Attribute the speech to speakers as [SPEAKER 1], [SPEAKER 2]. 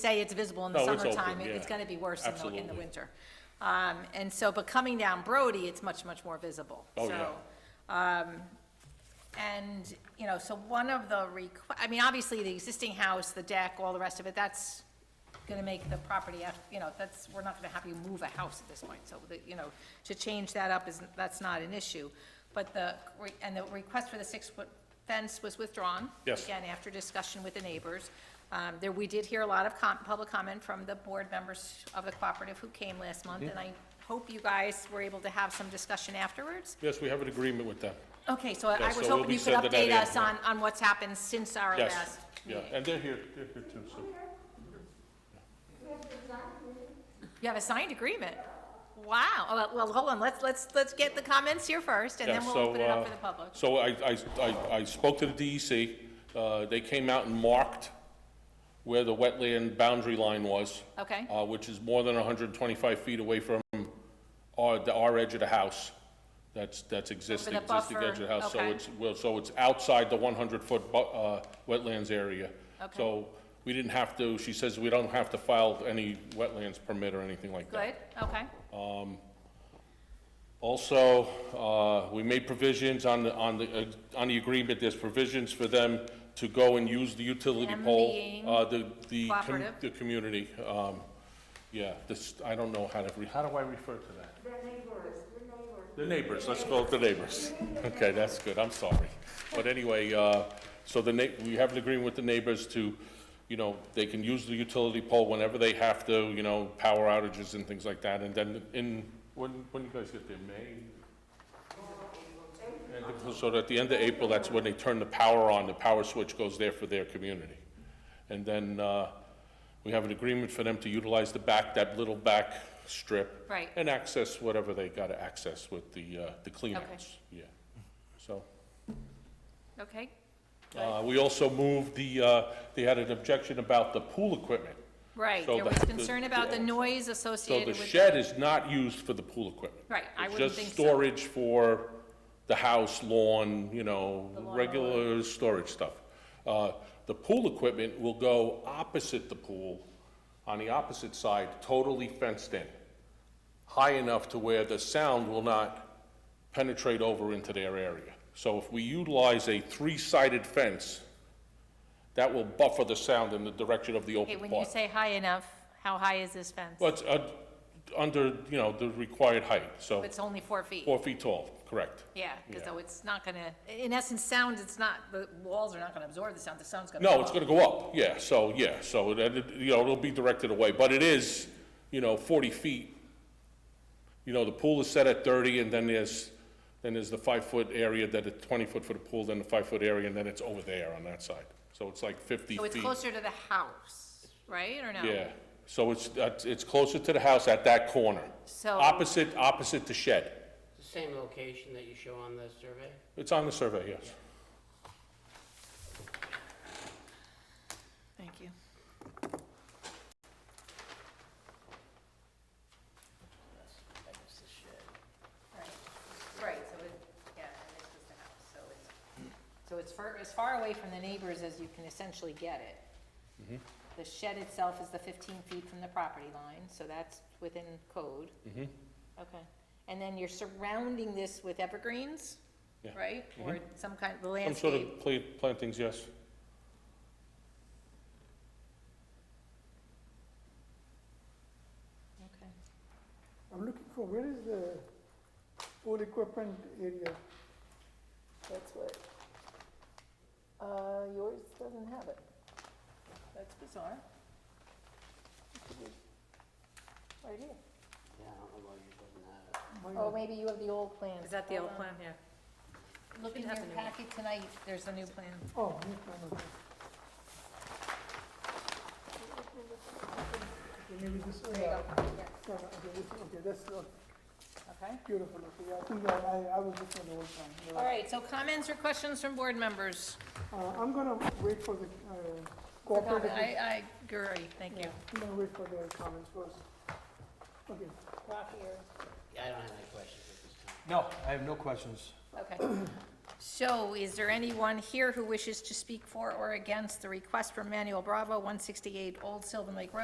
[SPEAKER 1] say it's visible in the
[SPEAKER 2] Oh, it's open,
[SPEAKER 1] summertime, it- it's
[SPEAKER 2] yeah.
[SPEAKER 1] gonna be worse in the, in the
[SPEAKER 2] Absolutely.
[SPEAKER 1] winter. Um, and so, but coming down Brody, it's much, much more visible,
[SPEAKER 2] Oh,
[SPEAKER 1] so.
[SPEAKER 2] yeah.
[SPEAKER 1] um, And, you know, so one of the requ, I mean, obviously, the existing house, the deck, all the rest of it, that's gonna make the property, af- you know, that's, we're not gonna have you move a house at this point, so, the- you know, to change that up is, that's not an issue. But the, re- and the request for the six-foot fence was withdrawn.
[SPEAKER 2] Yes.
[SPEAKER 1] Again, after discussion with the neighbors. Um, There, we did hear a lot of com, public comment from the board members of the cooperative who came last month, and I hope you guys were able to have some discussion afterwards.
[SPEAKER 2] Yes, we have an agreement with them.
[SPEAKER 1] Okay, so I
[SPEAKER 2] Yeah,
[SPEAKER 1] was
[SPEAKER 2] so we'll
[SPEAKER 1] hoping
[SPEAKER 2] be
[SPEAKER 1] you could
[SPEAKER 2] sending that
[SPEAKER 1] update
[SPEAKER 2] in,
[SPEAKER 1] us
[SPEAKER 2] yeah.
[SPEAKER 1] on, on what's happened since our
[SPEAKER 2] Yes,
[SPEAKER 1] last
[SPEAKER 2] yeah,
[SPEAKER 1] meeting.
[SPEAKER 2] and they're here, they're here too, so.
[SPEAKER 1] You have a signed agreement? Wow, Oh, well, well, hold on, let's, let's, let's get the comments here first, and
[SPEAKER 2] Yeah,
[SPEAKER 1] then we'll
[SPEAKER 2] so,
[SPEAKER 1] open it up
[SPEAKER 2] uh,
[SPEAKER 1] for the public.
[SPEAKER 2] So I, I, I, I spoke to the DEC, uh, they came out and marked where the wetland boundary line was.
[SPEAKER 1] Okay.
[SPEAKER 2] Uh, which is more than hundred and twenty-five feet away from our, the, our edge of the house. That's, that's existing, existing
[SPEAKER 1] buffer,
[SPEAKER 2] edge of the house, so
[SPEAKER 1] okay.
[SPEAKER 2] it's, well, so it's outside the one hundred foot bu, uh, wetlands area.
[SPEAKER 1] Okay.
[SPEAKER 2] So we didn't have to, she says we don't have to file any wetlands permit or anything like that.
[SPEAKER 1] Good, okay,
[SPEAKER 2] Also, uh, we made provisions on the, on the, uh, on the agreement, there's provisions for them to go and use the utility
[SPEAKER 1] Them
[SPEAKER 2] pole.
[SPEAKER 1] being
[SPEAKER 2] uh, The, the, com-
[SPEAKER 1] cooperative.
[SPEAKER 2] the community, um, yeah, this, I don't know how to, re- how do I refer to that? The neighbors, let's call it the neighbors. Okay, that's good, I'm sorry. But anyway, uh, so the na, we have an agreement with the neighbors to, you know, they can use the utility pole whenever they have to, you know, power outages and things like that, and then in, when, when you guys get there, May? And So at the end of April, that's when they turn the power on, the power switch goes there for their community. And then, uh, we have an agreement for them to utilize the back, that little back strip.
[SPEAKER 1] Right.
[SPEAKER 2] And access whatever they gotta access with the, uh, the
[SPEAKER 1] Okay.
[SPEAKER 2] cleanouts, yeah. So,
[SPEAKER 1] okay,
[SPEAKER 2] uh, we also moved the, uh, they had an objection about the pool equipment.
[SPEAKER 1] right,
[SPEAKER 2] So
[SPEAKER 1] there was
[SPEAKER 2] the-
[SPEAKER 1] concern about the noise
[SPEAKER 2] So
[SPEAKER 1] associated
[SPEAKER 2] the
[SPEAKER 1] with.
[SPEAKER 2] shed is not used for the pool equipment.
[SPEAKER 1] Right, I
[SPEAKER 2] It's
[SPEAKER 1] wouldn't think
[SPEAKER 2] just
[SPEAKER 1] so.
[SPEAKER 2] storage for the house, lawn, you know, regular storage stuff. Uh, The pool equipment will go opposite the pool, on the opposite side, totally fenced in, high enough to where the sound will not penetrate over into their area. So if we utilize a three-sided fence, that will buffer the sound in the direction of the open
[SPEAKER 1] Okay,
[SPEAKER 2] part.
[SPEAKER 1] when you say high enough, how high is this fence?
[SPEAKER 2] Well, it's, uh, under, you know, the required height, so
[SPEAKER 1] It's only four feet.
[SPEAKER 2] four feet tall, correct.
[SPEAKER 1] Yeah, because
[SPEAKER 2] Yeah.
[SPEAKER 1] though it's not gonna, in essence, sound, it's not, the walls are not gonna absorb the sound, the sound's gonna.
[SPEAKER 2] No,
[SPEAKER 1] go
[SPEAKER 2] it's
[SPEAKER 1] up.
[SPEAKER 2] gonna go up, yeah, so, yeah, so, that it- you know, it'll be directed away, but it is, you know, forty feet. You know, the pool is set at thirty, and then there's, then there's the five-foot area, then the twenty-foot for the pool, then the five-foot area, and then it's over there on that side. So it's like fifty
[SPEAKER 1] So it's
[SPEAKER 2] feet.
[SPEAKER 1] closer to the house, right, or no?
[SPEAKER 2] Yeah, so it's, that's- it's closer to the house at that corner.
[SPEAKER 1] So-
[SPEAKER 2] Opposite, opposite the shed.
[SPEAKER 3] The same location that you show on the survey?
[SPEAKER 2] It's on the survey, yes.
[SPEAKER 1] Thank you. Right, right, so it, yeah, and this is the house, so it's, so it's far, as far away from the neighbors as you can essentially get it.
[SPEAKER 2] Mm-hmm.
[SPEAKER 1] The shed itself is the fifteen feet from the property line, so that's within code.
[SPEAKER 2] Mm-hmm.
[SPEAKER 1] Okay, and then you're surrounding this with evergreens,
[SPEAKER 2] Yeah. Mm-hmm.
[SPEAKER 1] right? Or some kind of
[SPEAKER 2] Some sort
[SPEAKER 1] landscape.
[SPEAKER 2] of pla- plantings, yes.
[SPEAKER 1] Okay.
[SPEAKER 4] I'm looking for, where is the pool equipment area?
[SPEAKER 1] That's what, uh, yours doesn't have it. That's bizarre. Right here.
[SPEAKER 3] Yeah, I don't know why you doesn't have it.
[SPEAKER 1] Oh, maybe you have the old plan.
[SPEAKER 5] Is that the old plan? Yeah.
[SPEAKER 1] Look in your packet tonight, there's the new plan.
[SPEAKER 4] Oh, new plan, okay. Okay, Maybe this, oh, yeah. No, no, okay, this, okay, that's uh,
[SPEAKER 1] Okay.
[SPEAKER 4] beautiful, okay, yeah, I think I, I- I was looking at the old plan. you're
[SPEAKER 1] All
[SPEAKER 4] right.
[SPEAKER 1] right, so comments or questions from board members?
[SPEAKER 4] Uh, I'm gonna wait for the, uh,
[SPEAKER 1] I,
[SPEAKER 4] cooperative.
[SPEAKER 1] I agree, thank you.
[SPEAKER 4] Yeah, I'm gonna wait for their comments first. Okay,
[SPEAKER 3] Yeah, I don't have any questions at this time.
[SPEAKER 6] No, I have no questions.
[SPEAKER 1] Okay. So is there anyone here who wishes to speak for or against the request from Manuel Bravo, 168 Old Sylvan Lake Road